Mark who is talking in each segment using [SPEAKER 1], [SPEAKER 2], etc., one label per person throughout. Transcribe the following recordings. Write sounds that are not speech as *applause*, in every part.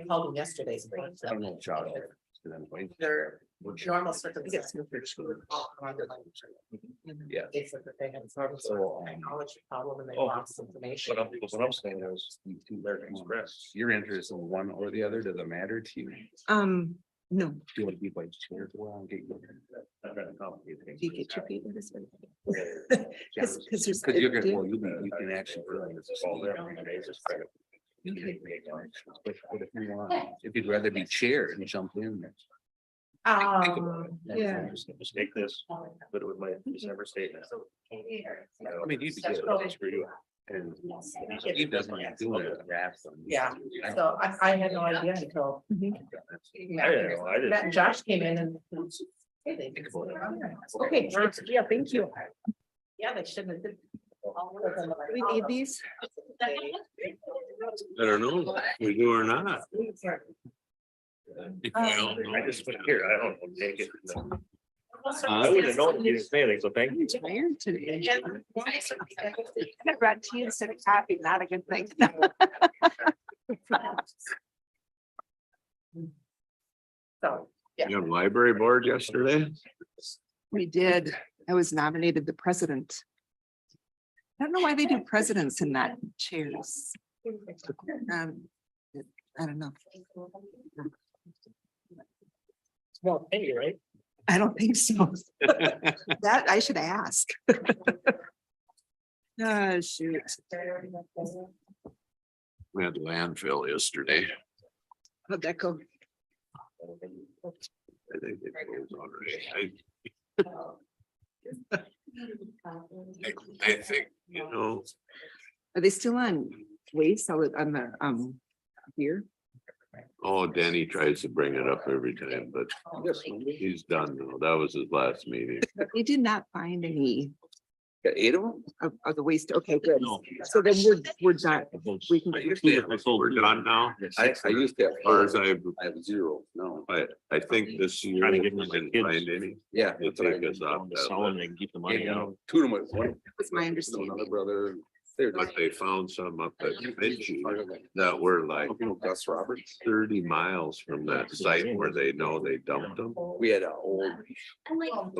[SPEAKER 1] I called him yesterday. so I'm
[SPEAKER 2] I don't know, Josh.
[SPEAKER 1] Under normal circumstances.
[SPEAKER 2] Yeah.
[SPEAKER 1] They said that they had sort
[SPEAKER 2] So,
[SPEAKER 1] of
[SPEAKER 2] um,
[SPEAKER 1] technology problem and they
[SPEAKER 2] oh,
[SPEAKER 1] lost information.
[SPEAKER 2] But I'm, but what I'm saying is, you two American Express, your interest in one or the other, does it matter to you? Do
[SPEAKER 3] Um, no.
[SPEAKER 2] you want to be like chair to one, get your? I'd rather complicate things.
[SPEAKER 3] Do you get your feet with this one? *laughs*
[SPEAKER 2] Yeah,
[SPEAKER 3] Cause, cause there's.
[SPEAKER 2] Cause you're gonna, well,
[SPEAKER 3] dude,
[SPEAKER 2] you can, you can actually. put it in this folder every day, just spread it. You can make one, but- but If you want, if you'd rather be chair and jump in. that's- think about it.
[SPEAKER 1] Um,
[SPEAKER 2] that's
[SPEAKER 3] yeah.
[SPEAKER 2] interesting. Just Take this, but it would my December statement. I mean, you'd be
[SPEAKER 1] That's
[SPEAKER 2] good.
[SPEAKER 1] cool.
[SPEAKER 2] That's for you. And he doesn't like doing it.
[SPEAKER 1] Yeah. So I, I had no idea until.
[SPEAKER 2] know, I didn't-
[SPEAKER 1] Matt and Josh came in and. Hey, they-
[SPEAKER 2] Think about it.
[SPEAKER 1] Okay, yeah, thank you. Yeah, they shouldn't have. did-
[SPEAKER 3] do We need these.
[SPEAKER 4] I don't know, we do or not.
[SPEAKER 3] Um,
[SPEAKER 2] I just went here, I don't know, take it. I
[SPEAKER 4] I
[SPEAKER 2] would have known you just saying it, so thank
[SPEAKER 3] I'm
[SPEAKER 2] you.
[SPEAKER 3] tired today. *laughs*
[SPEAKER 1] Yes,
[SPEAKER 3] I brought tea instead of coffee, not a good thing. *laughs*
[SPEAKER 1] So,
[SPEAKER 4] You on library board yesterday?
[SPEAKER 3] We did. I was nominated the president. I don't know why they do presidents and not chairs. Um, I don't know.
[SPEAKER 2] Well, hey, right?
[SPEAKER 3] I don't
[SPEAKER 2] *laughs*
[SPEAKER 3] think so. That I should ask. *laughs* Ah, shoot.
[SPEAKER 4] We had landfill yesterday.
[SPEAKER 3] How'd that go?
[SPEAKER 4] I think it was already. I, I think, you know,
[SPEAKER 3] Are they still on waste on the- on the, um, here?
[SPEAKER 4] oh, Danny tries to bring it up every time, but he's done now. That was his last meeting.
[SPEAKER 3] We did not find any
[SPEAKER 2] Eight of them?
[SPEAKER 3] of, of the waste. Okay, good. So then we're, we're done. We can-
[SPEAKER 4] I used to have- We're done now.
[SPEAKER 2] I, I used to have.
[SPEAKER 4] Or as I,
[SPEAKER 2] I have zero, no.
[SPEAKER 4] I, I think this year
[SPEAKER 5] Trying
[SPEAKER 4] we
[SPEAKER 5] to get my
[SPEAKER 4] didn't
[SPEAKER 5] kids.
[SPEAKER 4] find any.
[SPEAKER 2] Yeah.
[SPEAKER 4] We'll
[SPEAKER 2] that's what I
[SPEAKER 4] take
[SPEAKER 2] did.
[SPEAKER 4] us off
[SPEAKER 5] down to
[SPEAKER 4] that
[SPEAKER 5] sell them
[SPEAKER 4] list.
[SPEAKER 5] and keep the
[SPEAKER 2] Yeah,
[SPEAKER 5] money
[SPEAKER 2] you
[SPEAKER 5] out.
[SPEAKER 2] know, Two of them, went one,
[SPEAKER 3] That's my
[SPEAKER 2] another
[SPEAKER 3] understanding.
[SPEAKER 2] brother. they're
[SPEAKER 4] But
[SPEAKER 2] like-
[SPEAKER 4] they found some up at Benji that
[SPEAKER 2] That
[SPEAKER 4] were like
[SPEAKER 2] You know, Gus Roberts,
[SPEAKER 4] thirty miles from that site where they know they dumped them.
[SPEAKER 2] we had an old,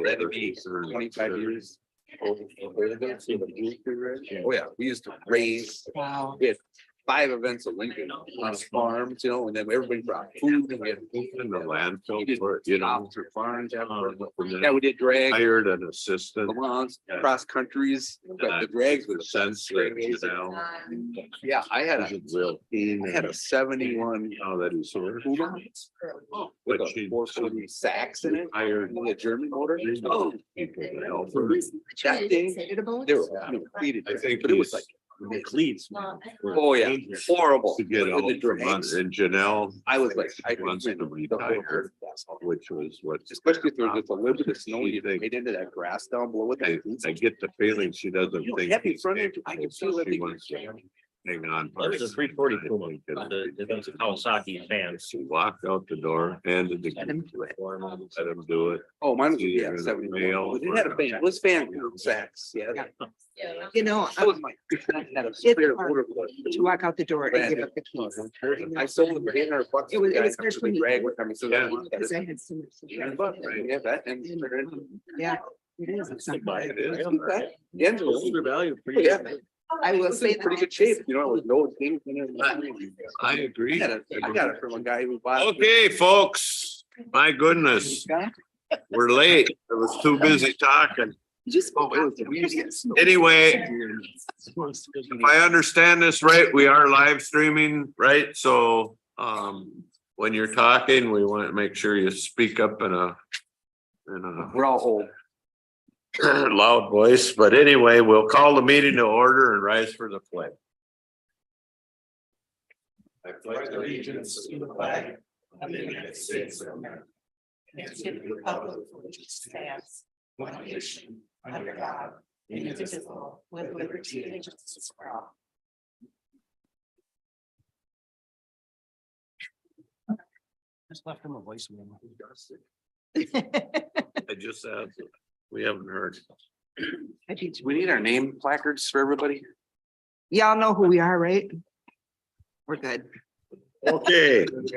[SPEAKER 2] That'd be twenty-five years. old- Oh, yeah, we used to raise
[SPEAKER 3] Wow.
[SPEAKER 2] five events at Lincoln on farms, you know, and then everybody brought food and we had. food
[SPEAKER 4] In the
[SPEAKER 2] We
[SPEAKER 4] landfill,
[SPEAKER 2] did
[SPEAKER 4] for it, you know, Um,
[SPEAKER 2] stops or farms, yeah, we're-
[SPEAKER 4] and
[SPEAKER 2] yeah,
[SPEAKER 4] then
[SPEAKER 2] we did drag,
[SPEAKER 4] hired an assistant
[SPEAKER 2] Lamont, cross countries, but the drags
[SPEAKER 4] with
[SPEAKER 2] were
[SPEAKER 4] a sense that, you know.
[SPEAKER 2] Yeah, I had a,
[SPEAKER 4] is real
[SPEAKER 2] I had a seventy-one.
[SPEAKER 4] Now that he's sort of.
[SPEAKER 2] Puma With
[SPEAKER 4] But
[SPEAKER 2] a
[SPEAKER 4] she-
[SPEAKER 2] four forty sax in it,
[SPEAKER 4] Hired.
[SPEAKER 2] and a German motor. Oh,
[SPEAKER 4] people to help her.
[SPEAKER 2] that thing, they were you know, pleated,
[SPEAKER 4] I think
[SPEAKER 2] but it was like,
[SPEAKER 5] The cleats. man, were
[SPEAKER 2] oh yeah,
[SPEAKER 5] dangerous.
[SPEAKER 2] horrible.
[SPEAKER 4] To get
[SPEAKER 2] With
[SPEAKER 4] out
[SPEAKER 2] the
[SPEAKER 4] for months
[SPEAKER 2] drags.
[SPEAKER 4] and Janelle.
[SPEAKER 2] I was like, I could
[SPEAKER 4] Wants
[SPEAKER 2] win
[SPEAKER 4] to
[SPEAKER 2] the whole
[SPEAKER 4] retire,
[SPEAKER 2] thing.
[SPEAKER 4] which was what.
[SPEAKER 2] Especially if there's just a little bit of snow,
[SPEAKER 4] She
[SPEAKER 2] you
[SPEAKER 4] thinks-
[SPEAKER 2] get into that grass down below with
[SPEAKER 4] I,
[SPEAKER 2] that.
[SPEAKER 4] I get the feeling she doesn't
[SPEAKER 2] You know,
[SPEAKER 4] think.
[SPEAKER 2] heavy
[SPEAKER 4] he's
[SPEAKER 2] front end, I
[SPEAKER 4] capable,
[SPEAKER 2] can
[SPEAKER 4] so
[SPEAKER 2] feel
[SPEAKER 4] She wants to
[SPEAKER 2] everything.
[SPEAKER 4] hang on.
[SPEAKER 5] That was a three forty Puma, the, the those Kawasaki fans.
[SPEAKER 4] She walked out the door, handed the.
[SPEAKER 3] Let him do it.
[SPEAKER 4] Let him do it.
[SPEAKER 2] Oh, mine was,
[SPEAKER 4] Either
[SPEAKER 2] yeah,
[SPEAKER 4] the
[SPEAKER 2] seventy.
[SPEAKER 4] male
[SPEAKER 2] It had a
[SPEAKER 4] or-
[SPEAKER 2] fan, it was fan
[SPEAKER 3] *laughs*
[SPEAKER 2] sax, yeah.
[SPEAKER 3] Yeah. You know,
[SPEAKER 2] *laughs* That
[SPEAKER 3] I-
[SPEAKER 2] was my. that was a spare motor clutch.
[SPEAKER 3] to walk out the door and
[SPEAKER 2] Brand
[SPEAKER 3] give up the
[SPEAKER 2] new.
[SPEAKER 3] keys.
[SPEAKER 2] I sold it for eight hundred bucks.
[SPEAKER 3] It was- it
[SPEAKER 2] The guy
[SPEAKER 3] was
[SPEAKER 2] comes with a
[SPEAKER 3] freshman
[SPEAKER 2] drag
[SPEAKER 3] year.
[SPEAKER 2] with him, he says, "I want that."
[SPEAKER 3] Because I had so much. to do.
[SPEAKER 2] Yeah, but, right, yeah, that and-
[SPEAKER 3] Yeah, it is. It's not
[SPEAKER 5] Buy
[SPEAKER 3] bad.
[SPEAKER 5] it, it's-
[SPEAKER 2] Okay. The engine was-
[SPEAKER 5] Older value. for
[SPEAKER 2] Oh, yeah.
[SPEAKER 5] you.
[SPEAKER 3] I
[SPEAKER 2] It
[SPEAKER 3] will
[SPEAKER 2] was in
[SPEAKER 3] say
[SPEAKER 2] Pretty
[SPEAKER 3] that.
[SPEAKER 2] good shape, you know, with no things in it.
[SPEAKER 4] I agree.
[SPEAKER 2] I got it- I got it from a guy who bought. it.
[SPEAKER 4] Okay, folks, my goodness, we're late. I was too busy talking.
[SPEAKER 3] You just.
[SPEAKER 4] Oh, it was
[SPEAKER 3] It
[SPEAKER 4] Anyway, if I understand this right, we are live streaming, right? So um, when you're talking, we want to make sure you speak up in a in a
[SPEAKER 2] We're all old.
[SPEAKER 4] *clears throat* loud voice, but anyway, we'll call the meeting to order and rise for the flag. I pledge allegiance to the flag of the United States of America.
[SPEAKER 1] it's to the public which stands one nation under God, indivisible, with liberty and justice for all.
[SPEAKER 5] Just left him a voicemail.
[SPEAKER 4] I just asked, we haven't heard.
[SPEAKER 2] We need our name placards for everybody.
[SPEAKER 3] Y'all know who we are, right? We're good.
[SPEAKER 4] *laughs* Okay.